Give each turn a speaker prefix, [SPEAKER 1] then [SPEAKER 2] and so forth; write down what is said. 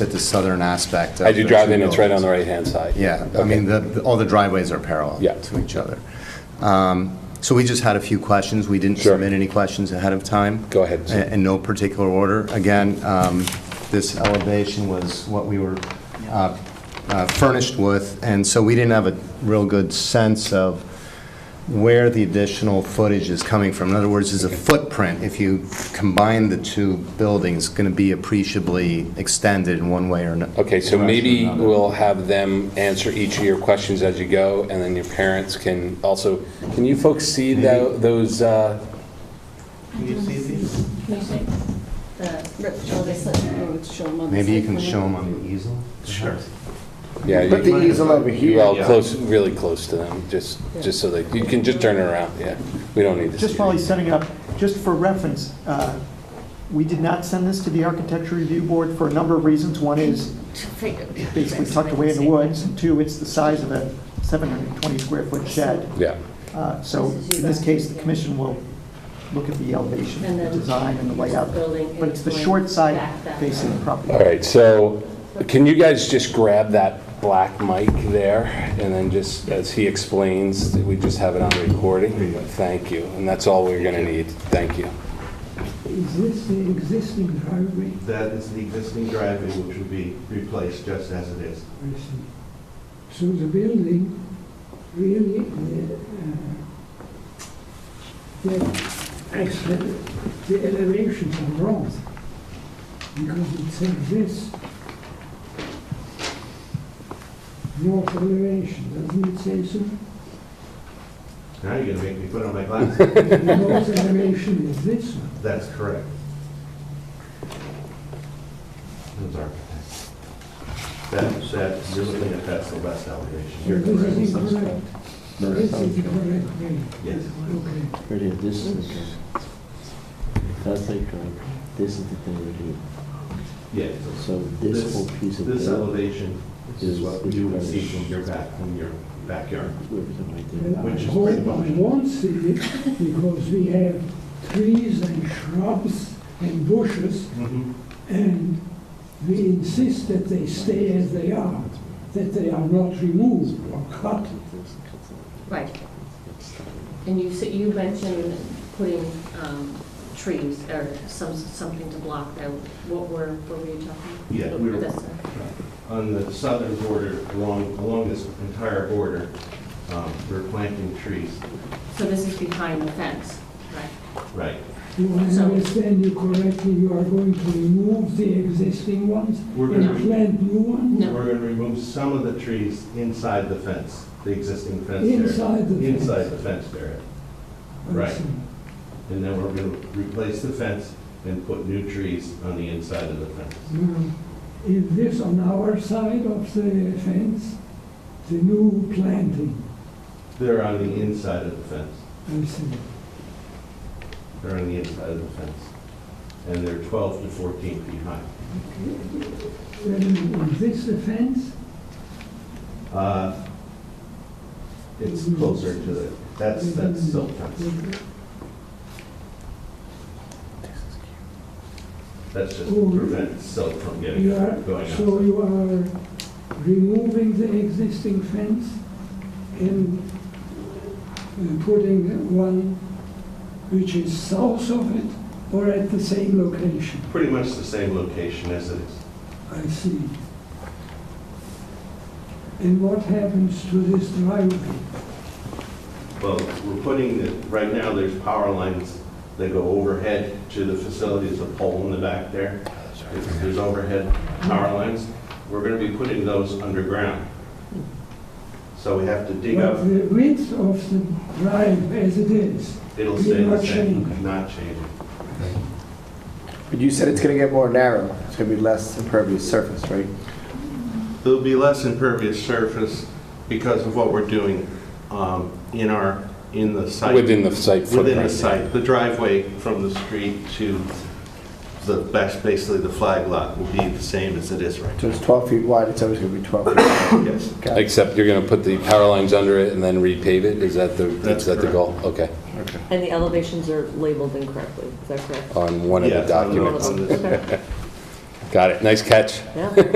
[SPEAKER 1] at the southern aspect. of
[SPEAKER 2] As you
[SPEAKER 1] the
[SPEAKER 2] drive
[SPEAKER 1] two
[SPEAKER 2] in, it's right on
[SPEAKER 1] buildings.
[SPEAKER 2] the right-hand side.
[SPEAKER 1] Yeah, I mean, the- the- all the driveways are parallel
[SPEAKER 2] Yeah.
[SPEAKER 1] to each other. Um, So we just had a few questions. We didn't
[SPEAKER 2] Sure.
[SPEAKER 1] submit any questions ahead of time.
[SPEAKER 2] Go ahead.
[SPEAKER 1] In in no particular order. Again, um, this elevation was what we were uh, uh, furnished with, and so we didn't have a real good sense of where the additional footage is coming from. In other words, is the footprint, if you combine the two buildings, going to be appreciably extended in one way or another?
[SPEAKER 2] Okay, so maybe we'll have them answer each of your questions as you go, and then your parents can also, can you folks see tho- those, uh,
[SPEAKER 3] Can you see these?
[SPEAKER 4] The rip shoulder slip, or it's show them on the
[SPEAKER 1] Maybe you
[SPEAKER 4] side
[SPEAKER 1] can
[SPEAKER 4] plan.
[SPEAKER 1] show them on the easel?
[SPEAKER 3] Sure.
[SPEAKER 2] yeah,
[SPEAKER 5] Put
[SPEAKER 2] you-
[SPEAKER 5] the easel over
[SPEAKER 2] well,
[SPEAKER 5] here.
[SPEAKER 2] close, really close to them, just, just so they, you can just turn it around, yeah. We don't need to see.
[SPEAKER 6] Just while
[SPEAKER 2] it.
[SPEAKER 6] he's setting it up, just for reference, uh, we did not send this to the Architecture Review Board for a number of reasons. One is basically tucked away in the woods, and two, it's the size of a 720 square foot shed.
[SPEAKER 2] Yeah,
[SPEAKER 6] Uh, So in this case, the commission will look at the elevation,
[SPEAKER 4] And
[SPEAKER 6] the
[SPEAKER 4] then
[SPEAKER 6] design, and the layout.
[SPEAKER 4] building
[SPEAKER 6] But it's the
[SPEAKER 4] and
[SPEAKER 6] short side
[SPEAKER 4] back that
[SPEAKER 6] facing the property.
[SPEAKER 2] all right, so can you guys just grab that black mic there? And then just, as he explains, we just have it on recording, but thank you, and that's all we're gonna need, thank you.
[SPEAKER 7] Is this the existing driveway?
[SPEAKER 3] That is the existing driveway, which would be replaced just as it is.
[SPEAKER 7] I see. So the building really, uh, the, actually, the elevations are wrong. Because it's like this. North elevation, doesn't it say so?
[SPEAKER 3] Now you're gonna make me put on my glasses.
[SPEAKER 7] The North elevation is this one.
[SPEAKER 3] That's correct. Those architects. That, that, you're looking at that's the best elevation. You're
[SPEAKER 7] This is
[SPEAKER 3] correct.
[SPEAKER 7] incorrect. This is the correct way.
[SPEAKER 3] Yes.
[SPEAKER 7] Okay.
[SPEAKER 8] Really, this is the curve. That's like, uh, this is the thing we do.
[SPEAKER 3] Yeah.
[SPEAKER 8] So this whole piece of
[SPEAKER 3] This
[SPEAKER 8] the,
[SPEAKER 3] elevation is
[SPEAKER 8] is-
[SPEAKER 3] what
[SPEAKER 8] is
[SPEAKER 3] you would
[SPEAKER 8] better.
[SPEAKER 3] see from your back, from your backyard.
[SPEAKER 8] everything right there.
[SPEAKER 7] And
[SPEAKER 3] Which
[SPEAKER 7] I
[SPEAKER 3] is
[SPEAKER 7] hope
[SPEAKER 3] pretty
[SPEAKER 7] I
[SPEAKER 3] much-
[SPEAKER 7] won't see it because we have trees and shrubs and bushes and we insist that they stay as they are, that they are not removed or cut.
[SPEAKER 4] Right. And you, said- you mentioned putting um, trees or some, something to block that. What were, what were you talking?
[SPEAKER 3] Yeah, we were-
[SPEAKER 4] This, uh,
[SPEAKER 3] On the southern border, along, along this entire border, um, we're planting trees,
[SPEAKER 4] So this is behind the fence, right?
[SPEAKER 3] right?
[SPEAKER 7] Do I
[SPEAKER 4] So-
[SPEAKER 7] understand you correctly, you are going to remove the existing ones
[SPEAKER 3] We're
[SPEAKER 4] No.
[SPEAKER 7] and
[SPEAKER 3] gonna,
[SPEAKER 7] plant new ones?
[SPEAKER 4] No.
[SPEAKER 3] we're gonna remove some of the trees inside the fence, the existing fence area.
[SPEAKER 7] Inside the fence?
[SPEAKER 3] Inside the fence area.
[SPEAKER 7] I
[SPEAKER 3] right.
[SPEAKER 7] see.
[SPEAKER 3] And then we're gonna replace the fence and put new trees on the inside of the fence.
[SPEAKER 7] Now, Is this on our side of the fence, the new planting?
[SPEAKER 3] They're on the inside of the fence.
[SPEAKER 7] I see.
[SPEAKER 3] They're on the inside of the fence. And they're 12 to 14 feet high.
[SPEAKER 7] Then Is this the fence?
[SPEAKER 3] Uh, It's
[SPEAKER 7] Mm-hmm.
[SPEAKER 3] closer to the, that's, that's silt fence. That's just to prevent silt from getting,
[SPEAKER 7] You are,
[SPEAKER 3] going up.
[SPEAKER 7] so you are removing the existing fence and uh, putting one which is south of it or at the same location?
[SPEAKER 3] Pretty much the same location as it is.
[SPEAKER 7] I see. And what happens to this driveway?
[SPEAKER 3] Well, we're putting, the right now, there's power lines that go overhead to the facility, there's a pole in the back there. There's- There's overhead power lines. We're going to be putting those underground. So we have to dig
[SPEAKER 7] But
[SPEAKER 3] up,
[SPEAKER 7] the width of the driveway as it is,
[SPEAKER 3] it'll stay the
[SPEAKER 7] Not
[SPEAKER 3] same,
[SPEAKER 7] change.
[SPEAKER 3] not changing.
[SPEAKER 5] But you said it's going to get more narrow. It's going to be less impervious surface, right?
[SPEAKER 3] There'll be less impervious surface because of what we're doing um, in our, in the site.
[SPEAKER 2] Within the site footprint.
[SPEAKER 3] Within the site, the driveway from the street to the, bas- basically the flag lot will be the same as it is right
[SPEAKER 5] So it's 12 feet wide, it's always going to be 12 feet wide.
[SPEAKER 3] now. Yes.
[SPEAKER 5] Got it.
[SPEAKER 2] Except you're going to put the power lines under it and then repave it? Is that the, is
[SPEAKER 3] That's
[SPEAKER 2] that the
[SPEAKER 3] correct.
[SPEAKER 2] goal? Okay,
[SPEAKER 9] And the elevations are labeled incorrectly, is that correct?
[SPEAKER 2] on one of the
[SPEAKER 3] Yeah, on the-
[SPEAKER 2] documents.
[SPEAKER 3] on this.
[SPEAKER 10] Got it. Nice catch.
[SPEAKER 2] Yeah.